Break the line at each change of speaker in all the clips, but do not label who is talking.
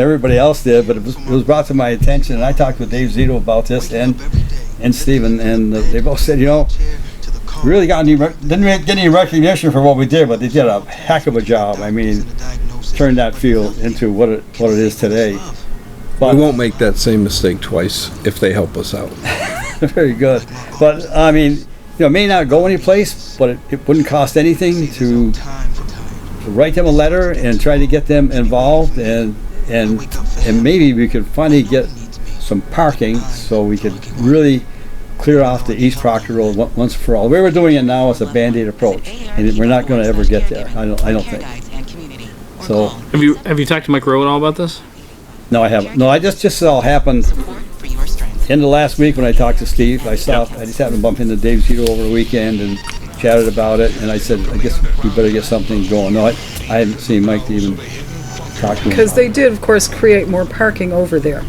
Everybody else did, but it was, it was brought to my attention, and I talked with Dave Zito about this and, and Steven, and they both said, you know, we really got any, rec- didn't re- get any recognition for what we did, but they did a heck of a job. I mean, turned that field into what it, what it is today.
We
But-
won't make that same mistake twice if they help us out.
Very good. But, I mean, you know, it may not go anyplace, but it, it wouldn't cost anything to write them a letter and try to get them involved and, and, and maybe we could finally get some parking so we could really clear off the East Proctor Road on- once for all. We were doing it now as a Band-Aid approach, and we're not gonna ever get there, I don't, I don't think. So-
So.
Have you have you talked to Mike Rowe at all about this?
No, I haven't. No, I just, just all happened end of last week when I talked to Steve, I stopped, I just happened to bump into Dave Zito over the weekend and chatted about it, and I said, I guess we better get something going. No, I, I haven't seen Mike to even talk to him.
Because they
about
did, of course, create more parking over there.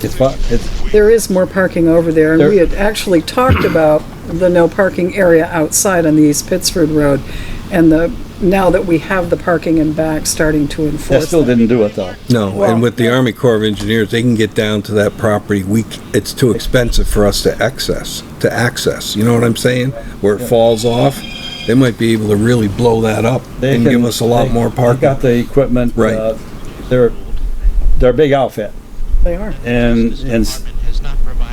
it. It's, fu- it's,
There is more parking over there, and
There-
we had actually talked about the no parking area outside on the East Pittsford Road, and the, now that we have the parking in back, starting to
that
enforce
still
that.
didn't do it though.
No,
Well-
and with the Army Corps of Engineers, they can get down to that property. We, c- it's too expensive for us to access, to access, you know what I'm saying? Where it falls off, they might be able to really blow that up
They
and
can-
give us a lot
they-
more
They got
parking.
the equipment.
Right.
uh, They're, they're a big outfit,
They are.
and, and, s-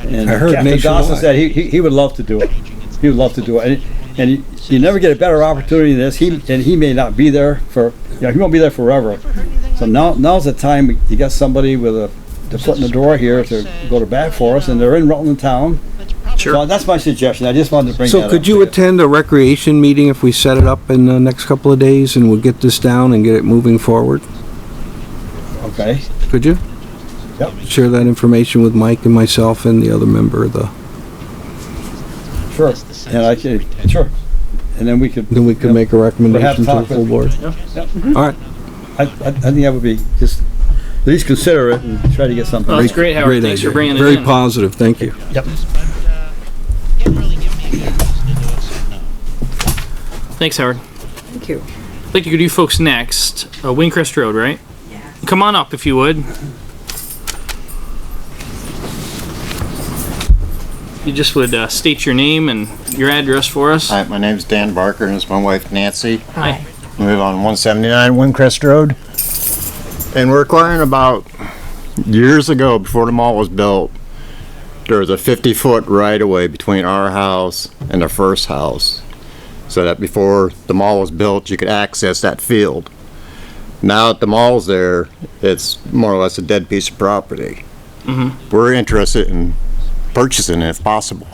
and
I heard
Captain Dawson
nationwide.
said he, he he would love to do it. He would love to do it, and, and you- you never get a better opportunity than this. He, and he may not be there for, you know, he won't be there forever. So now, now's the time, you got somebody with a, the foot in the door here to go to bat for us, and they're in Rutland Town. So that's my suggestion, I just wanted to bring that
So
up
could
to
you attend a recreation meeting if we set it up in the next couple of days and we'll get this down and get it moving forward?
Okay,
Could you?
Yep.
Share that information with Mike and myself and the other member of the,
sure, and I could, sure, and then we could,
then we could make a recommendation to the
talk
full
with-
board. All right.
I, I, I think that would be, just, at least consider it and try to get something.
Well, that's great, Howard.
Great
Thanks for
idea.
bringing it in.
Very positive, thank you.
Thanks, Howard.
Thank you.
I think you could do folks next. Uh, Windcrest Road, right? Come on up if you would. You just would uh, state your name and your address for us.
Hi, my name's Dan Barker and it's my wife Nancy.
Hi.
We live on 179 Windcrest Road. And we're acquiring about years ago, before the mall was built, there was a 50 foot right of way between our house and the first house. So that before the mall was built, you could access that field. Now that the mall's there, it's more or less a dead piece of property. We're interested in purchasing it if possible.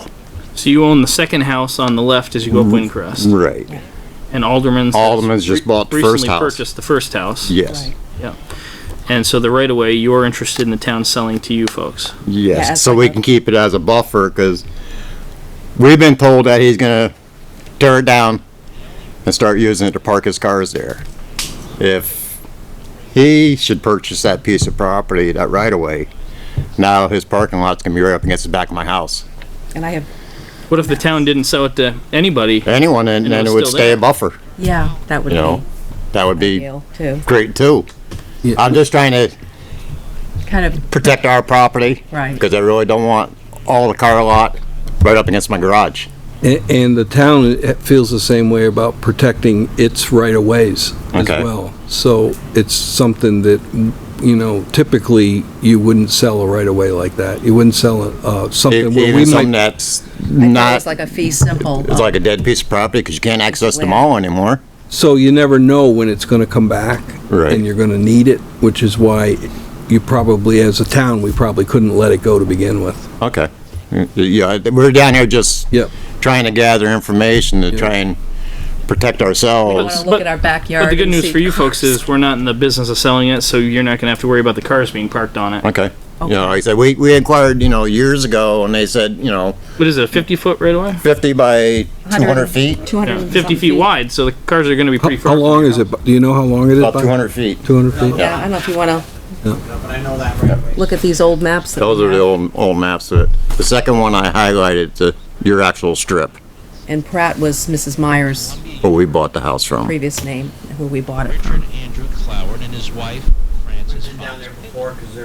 So you own the second house on the left as you go up Windcrest,
Right.
and Alderman's
Mm-hmm. Alderman's just bought the first
recently
house.
purchased the first house.
Yes.
And so the right of way, you're interested in the town selling to you folks.
Yes,
Yeah,
so
that's
we
okay.
can keep it as a buffer because we've been told that he's gonna tear it down and start using it to park his cars there. If he should purchase that piece of property, that right of way, now his parking lot's gonna be right up against the back of my house.
And I have,
What if the town didn't sell it to anybody?
Anyone, and
And
then
it's
it would
still
stay
there.
a buffer,
yeah, that would
you know?
be
That would be
ideal too.
great too.
Yeah.
I'm just trying to
Kind of,
protect our property
right.
because I really don't want all the car lot right up against my garage.
A- And the town uh, feels the same way about protecting its right-of-ways as
Okay.
well. So it's something that, you know, typically you wouldn't sell a right-of-way like that. You wouldn't sell uh, something
E-, Even
where we
something
might,
that's
I
not.
thought It's like a fee simple.
It's like a dead piece of property because you can't access the mall anymore.
so you never know when it's going to come back.
Right.
And you're going to need it, which is why you probably, as a town, we probably couldn't let it go to begin with.
Okay. Yeah, we're down here just
Yep.
trying to gather information to try and protect
I want to
ourselves.
look
But-
at our backyard.
But the good
and
news
see
for you folks
cars.
is we're not in the business of selling it, so you're not gonna have to worry about the cars being parked on it.
Okay. You know, like I said, we, we inquired, you know, years ago and they said, you know,
What is it, a fifty foot right away?
50 by 200 feet?
200 and
Fifty
some
feet wide, so the cars are gonna be
How
pretty
how
far.
long is it? Do you know how long it is?
About
Bob?
200 feet.
200 feet?
Yeah, I don't know if you want
Yeah.
to look at these old maps. that
Those
we
are the
have
old, old maps of it. The second one I highlighted, the, your actual strip
And Pratt was Mrs. Meyer's
where we bought the house from.
previous name, who we bought it from.
Richard Andrew Cloward and his wife, Frances been down there before, because they're